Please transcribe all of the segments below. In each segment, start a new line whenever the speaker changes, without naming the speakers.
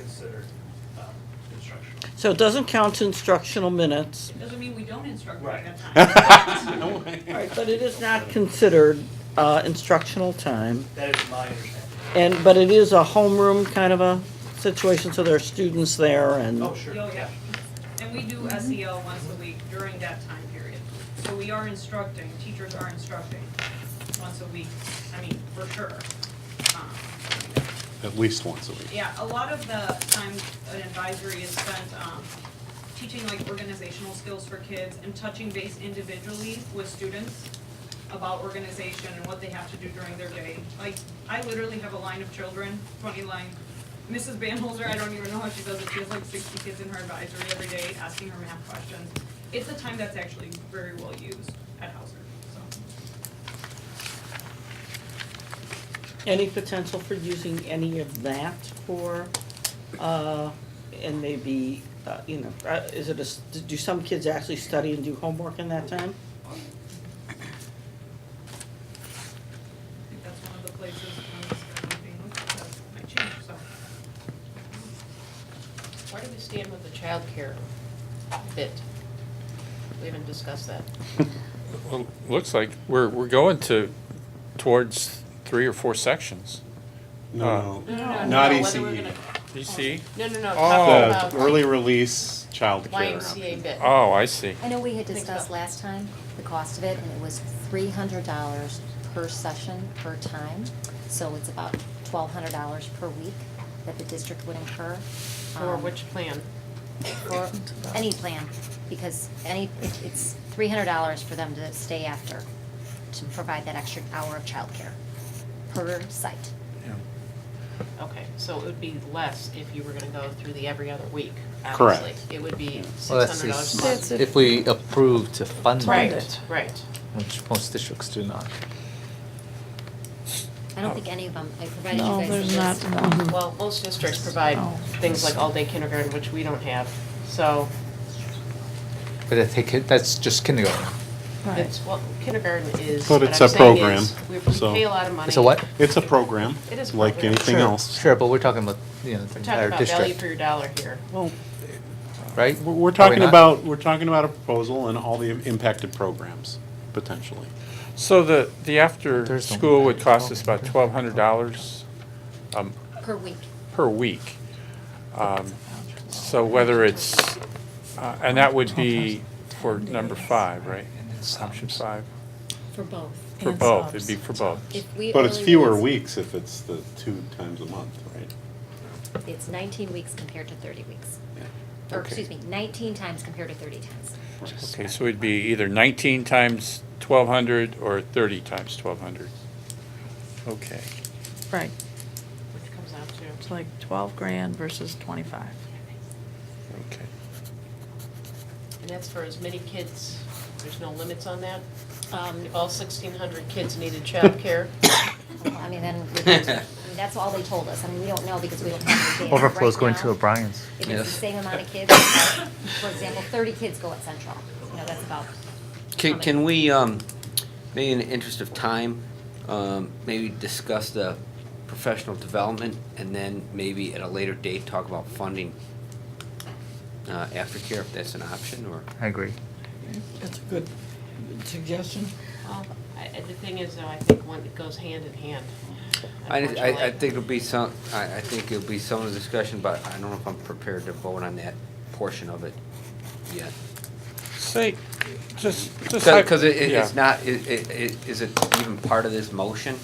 considered um, instructional.
So it doesn't count instructional minutes,
It doesn't mean we don't instruct
Right.
during that time.
but it is not considered uh, instructional time.
That is my understanding.
And, but it is a homeroom kind of a situation, so there are students there and.
Oh, sure.
Oh, yeah. And we do SEL once a week during that time period. So we are instructing, teachers are instructing once a week, I mean, for sure. Um,
At least once a week.
Yeah, a lot of the time an advisory is spent um, teaching like organizational skills for kids and touching base individually with students about organization and what they have to do during their day. Like, I literally have a line of children, twenty line. Mrs. Banholzer, I don't even know how she does it, she has like sixty kids in her advisory every day, asking her math questions. It's a time that's actually very well used at Hauser, so.
Any potential for using any of that for, uh, and maybe, uh, you know, uh, is it a, s- do some kids actually study and do homework in that time?
I think that's one of the places when this is being looked at, that might change, so.
Where do we stand with the childcare bit? We haven't discussed that.
Well, looks like we're, we're going to, towards three or four sections.
No,
Oh. No,
not E
whether we're
ECE.
gonna-
DC?
No, no, no,
Oh.
talking
The
about
early release childcare.
YMCA bit.
Oh, I see.
I know we had
Mixed
discussed
up.
last time the cost of it, and it was three hundred dollars per session, per time. So it's about twelve hundred dollars per week that the district would incur.
For
um,
which plan?
For any plan, because any, it- it's three hundred dollars for them to stay after, to provide that extra hour of childcare per site.
Okay, so it would be less if you were gonna go through the every other week,
Correct.
obviously. It would be
Well,
six
that's
hundred dollars a
just
month.
if we approve to fund
Right,
it,
right.
which most districts do not.
I don't think any of them, I provided you guys with this.
Well, most districts provide things like all-day kindergarten, which we don't have, so
But I think it- that's just kindergarten.
it's, well, kindergarten is,
But
what
it's
I'm
a
saying
program,
is, we we
so-
pay a lot of money.
It's a what?
It's a program,
It is a
like
program.
anything
Sure,
else.
Sure, but we're talking about, you know, the
We're talking
entire
about value for
district,
your dollar here.
right?
We're we're
Are we
talking
not?
about, we're talking about a proposal and all the impacted programs, potentially.
So the, the
There's no-
after-school would cost us about twelve hundred dollars
Per week.
per week. Um, So whether it's, uh, and that would be for number five, right? Option five,
For both.
for both, it'd be for both.
If we
But it's
only
fewer
release-
weeks if it's the two times a month, right?
It's 19 weeks compared to 30 weeks.
Yeah.
Or,
Okay.
excuse me, 19 times compared to 30 times.
Okay, so it'd be either nineteen times twelve hundred or thirty times twelve hundred. Okay.
Right,
Which comes out
it's
to,
like twelve grand versus twenty-five.
Okay.
and that's for as many kids, there's no limits on that?
Um,
If all sixteen hundred kids needed childcare,
well, I mean, then, we- I mean, that's all they told us. I mean, we don't know because we don't have the data.
Overflow's
Right
going
now,
to O'Brien's.
If it's the same amount of kids, for example, 30 kids go at Central. You know, that's about. how
Can,
many-
can we, um, maybe in the interest of time, um, maybe discuss the professional development and then maybe at a later date talk about funding uh, aftercare if that's an option or?
I agree.
That's a good suggestion.
well, I, I- the thing is, though, I think one, it goes hand in hand.
I, I, I
unfortunately.
think it'll be some, I, I think it'll be some of the discussion, but I don't know if I'm prepared to vote on that portion of it yet.
Say, just, just.
Cause, 'cause it, it-
yeah.
it's not, it, it, it- is it even part of this motion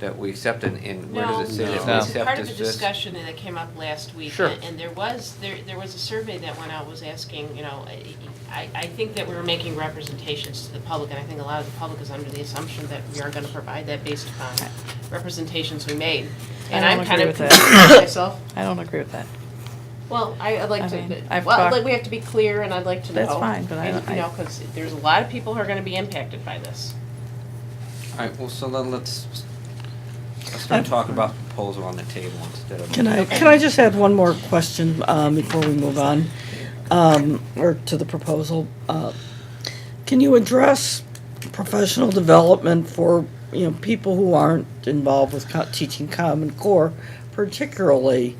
that we accept and, and where does it say that we
No.
No,
accept this?
part of the
this?
discussion that came up last week.
Sure.
and- And there was, there, there was a survey that went out, was asking, you know, I, I think that we were making representations to the public, and I think a lot of the public is under the assumption that we are gonna provide that based upon representations we made.
I
And
don't
I'm
agree
kind of
with that.
confused myself.
I don't agree with that.
Well, I, I'd like
I
to,
mean,
well,
I've
I'd like,
talked-
we have to be clear and I'd like to know.
That's fine, but I
and,
don't-
You know,
I-
because there's a lot of people who are gonna be impacted by this.
All right, well, so then let's, let's start talking about the proposal on the table instead of.
Can I, can I just add one more question um, before we move on, um, or to the proposal? Uh, Can you address professional development for, you know, people who aren't involved with co- teaching Common Core, particularly